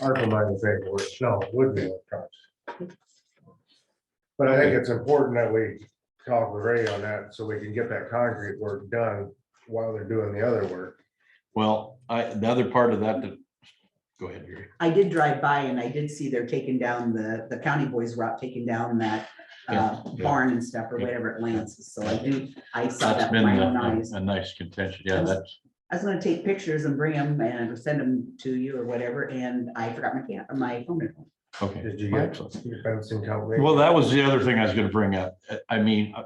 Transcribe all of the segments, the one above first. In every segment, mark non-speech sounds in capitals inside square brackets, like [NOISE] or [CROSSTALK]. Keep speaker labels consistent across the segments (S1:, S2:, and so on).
S1: Article nine is paperwork, no, it would be electronic. But I think it's important that we talk with Ray on that, so we can get that concrete work done while they're doing the other work.
S2: Well, I, the other part of that, that- go ahead, Gary.
S3: I did drive by and I did see they're taking down the, the county boys were out taking down that uh,
S2: Yeah, yeah.
S3: barn and stuff or
S2: Yeah.
S3: whatever it lands. So I do, I saw
S2: That's
S3: that
S2: been uh,
S3: with my own
S2: a,
S3: eyes.
S2: a nice contention. Yeah,
S3: Yes.
S2: that's,
S3: I was gonna take pictures and bring them and send them to you or whatever, and I forgot my camera, my phone. at home.
S2: okay.
S1: Did you get
S2: Excellent.
S1: your fencing company?
S2: Well, that was the other thing I was gonna bring up. I mean, uh,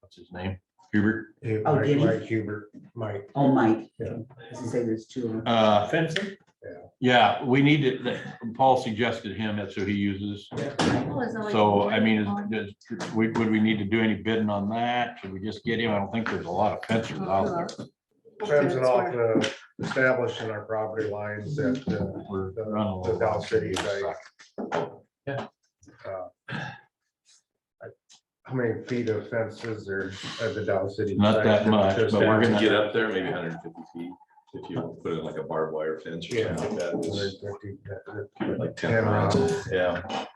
S2: what's his name? Hubert.
S1: Yeah,
S3: Oh,
S1: Mike-
S3: did he?
S1: Mike Hubert, Mike,
S3: Oh, Mike.
S1: Yeah.
S3: Does it say there's two of them?
S2: Uh,
S4: Fencing?
S2: yeah, we need to, that- Paul suggested him. That's who he uses. So, I mean, is- does- would, would we need to do any bidding on that? Should we just get him? I don't think there's a lot of fencers out there.
S1: fencing off the establishing our property lines that, uh,
S2: We're
S1: The-
S2: running
S1: the
S2: a little
S1: Dow
S2: long.
S1: City site. uh, I- how many feet of fences are at the Dow City?
S2: Not that
S1: site?
S2: much,
S1: Just
S2: but we're
S1: that.
S2: gonna-
S5: Get up there, maybe hundred and fifty feet, if you put in like a barbed wire fence or
S1: Yeah.
S5: something like that,
S1: 150, that- that-
S5: it's like ten
S1: Ten
S5: rounds.
S1: rounds,
S5: Yeah.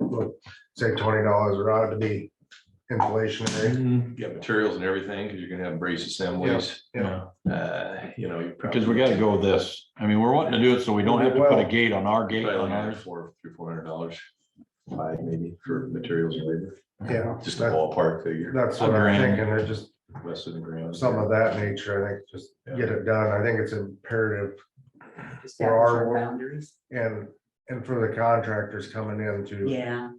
S1: look, say twenty dollars a rod to be inflationary.
S5: Get materials and everything, because you're gonna have brace assemblies,
S1: Yeah.
S5: uh, you know. you probably-
S2: Because we gotta go with this. I mean, we're wanting to do it so we don't have to put a gate on our gate
S5: Probably
S2: on
S5: like
S2: ours.
S5: four, three, four hundred dollars, five maybe for materials and labor,
S1: Yeah,
S5: just a
S1: that-
S5: ballpark figure,
S1: that's what
S2: A
S1: I'm
S2: grand.
S1: thinking, they're just
S5: less than a grand.
S1: some of that nature, I think, just get it done, I think it's imperative.
S3: Establish
S1: our
S3: our
S1: work.
S3: boundaries.
S1: And, and for the contractors coming in to,
S3: Yeah,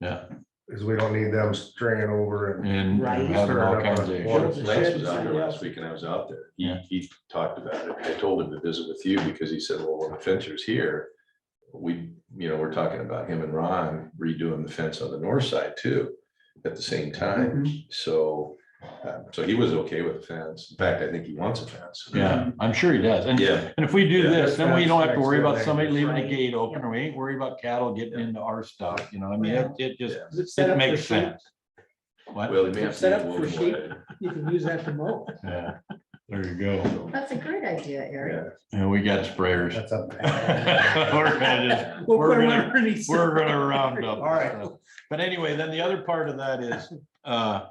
S2: Yeah,
S1: because we don't need them stringing over and,
S2: and
S3: Right.
S2: having all kinds of.
S1: Sure.
S5: Well,
S2: issues.
S5: Lance was out here last week and I was out there. He,
S2: Yeah.
S5: he talked about it. I told him to visit with you because he said, well, when the fencer's here, we, you know, we're talking about him and Ron redoing the fence on the north side too, at the same
S4: Mm-hmm.
S5: time.
S3: mhm,
S5: So, uh, so he was okay with the fence. In fact, I think he wants a fence.
S2: Yeah, I'm sure he does. And,
S5: Yeah.
S2: and if we do
S5: Yeah.
S2: this, then we don't have to worry about
S1: That's-
S2: somebody leaving a
S3: Right.
S2: gate open, or we ain't worried about cattle getting into our stuff, you know, I mean, it it just,
S5: Yeah.
S2: it makes sense. What?
S5: Well, he may have
S4: Set
S5: to.
S4: up
S5: use
S4: for
S5: one
S4: sheep.
S5: more
S4: You can use that to mow.
S2: Yeah, there you go.
S5: day.
S6: That's a great idea, Eric.
S5: Yeah.
S2: And we got sprayers.
S1: [LAUGHS] that's up.
S5: [LAUGHS]
S2: We're gonna just
S4: We'll
S2: We're
S4: put them
S2: gonna-
S4: underneath.
S2: We're gonna
S1: [LAUGHS]
S2: round up.
S1: All right.
S2: so. But anyway, then the other part of that is, uh,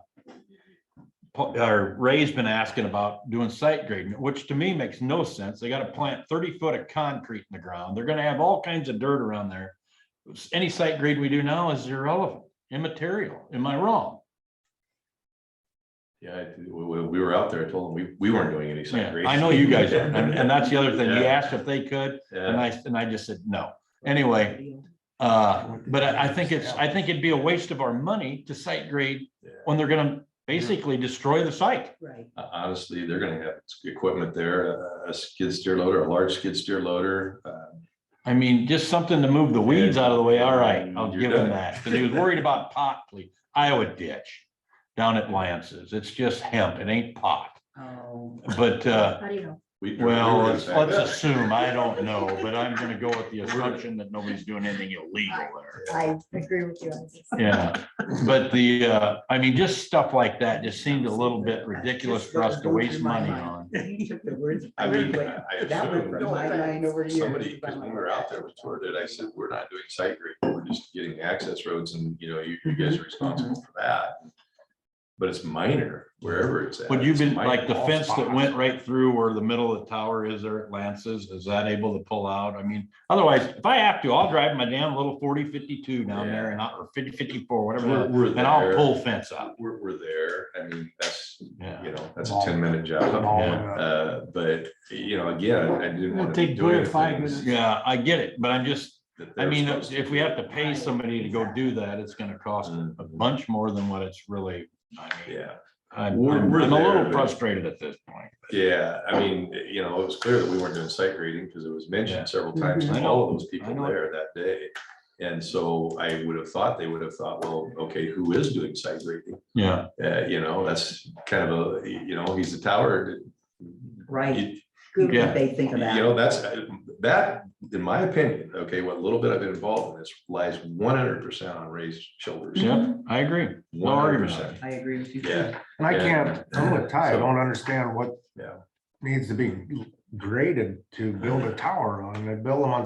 S2: Pa- or Ray's been asking about doing site grading, which to me makes no sense. They gotta plant thirty foot of concrete in the ground. They're gonna have all kinds of dirt around there. Any site grade we do now is irrelevant, immaterial. Am I wrong?
S5: Yeah, I- we, we- we were out there. I told him we, we weren't doing any site
S2: Yeah,
S5: grading.
S2: I know you guys
S5: [LAUGHS]
S2: are, and, and that's the other thing. He
S5: Yeah.
S2: asked if they could, and
S5: Yeah.
S2: I, and I just said no. Anyway,
S3: deal.
S2: Uh, but I, I think it's, I think it'd be a waste of our money to site grade
S5: Yeah.
S2: when they're gonna basically destroy the site.
S3: Right.
S5: Uh, Honestly, they're gonna have equipment there, a- a skid steer loader, a large skid steer loader. uh,
S2: I mean, just something to move the weeds out of the way. All right, I'll
S5: Mm, You're
S2: give him
S5: done.
S2: that. Cause he was worried about pot, please, Iowa ditch down at Lance's. It's just hemp. It ain't pot.
S3: Oh,
S2: But, uh,
S6: How do you know?
S5: we- we were
S2: well,
S5: gonna
S2: let's
S5: back
S2: let's
S5: up.
S2: assume, I
S5: [LAUGHS]
S2: don't know, but I'm gonna go with the assumption that nobody's doing anything illegal there.
S5: [LAUGHS]
S6: I agree with you. on this.
S2: Yeah, but the, uh, I mean, just stuff like that just seemed a little bit ridiculous for us to waste money on.
S3: [LAUGHS] You took the words.
S5: I mean, I I
S3: That went from my
S5: assumed
S3: mind over to yours.
S5: somebody, because when we were out there with Torrid, I said, we're not doing site grade, we're just getting access roads and, you know, you, you guys
S2: Mhm.
S5: are responsible for that. But it's minor wherever it's at.
S2: Would you
S5: It's
S2: be
S5: minor.
S2: like the
S5: All
S2: fence that
S5: spots.
S2: went right through where the middle of the tower is there at Lance's, is that able to pull out? I mean, otherwise, if I have to, I'll drive my damn little forty fifty-two down there and I, or fifty fifty-four, whatever,
S5: We're,
S2: that is,
S5: we're
S2: and I'll
S5: there.
S2: pull fence up.
S5: We're, we're there. I mean, that's,
S2: Yeah.
S5: you know, that's a ten minute job. Uh, but, you know, again, I didn't.
S4: It'll
S5: want to
S4: take Blair five minutes.
S2: Yeah, I get it, but I'm just, I mean, if we have to pay
S3: Right,
S2: somebody to go do that, it's gonna cost a
S5: Mhm.
S2: bunch more than what it's really, I mean.
S5: Yeah,
S2: I'm,
S5: We're-
S2: I'm
S5: we're
S2: I'm a
S5: there,
S2: little
S5: but-
S2: frustrated at this point.
S5: yeah, I mean, you know, it was clear that we weren't doing site grading because it was
S2: Yeah.
S5: mentioned several times
S2: Mhm. I
S5: to
S2: know.
S5: all of those
S2: I
S5: people
S2: know.
S5: there that day. And so I would have thought, they would have thought, well, okay, who is doing site grading?
S2: Yeah,
S5: Uh, you know, that's kind of a, you know, he's a tower.
S3: Right,
S5: You
S3: good
S2: Yeah.
S3: what they think of
S5: you
S3: that.
S5: know, that's, that, in my opinion, okay, what little bit I've been involved in this lies one hundred percent on Ray's shoulders.
S2: yeah, I agree. No argument.
S5: 100%.
S3: I agree with you.
S5: Yeah,
S1: And I can't, I'm with Ty, I
S5: So-
S1: don't understand what
S5: Yeah.
S1: needs to be graded to build a tower on, they build them on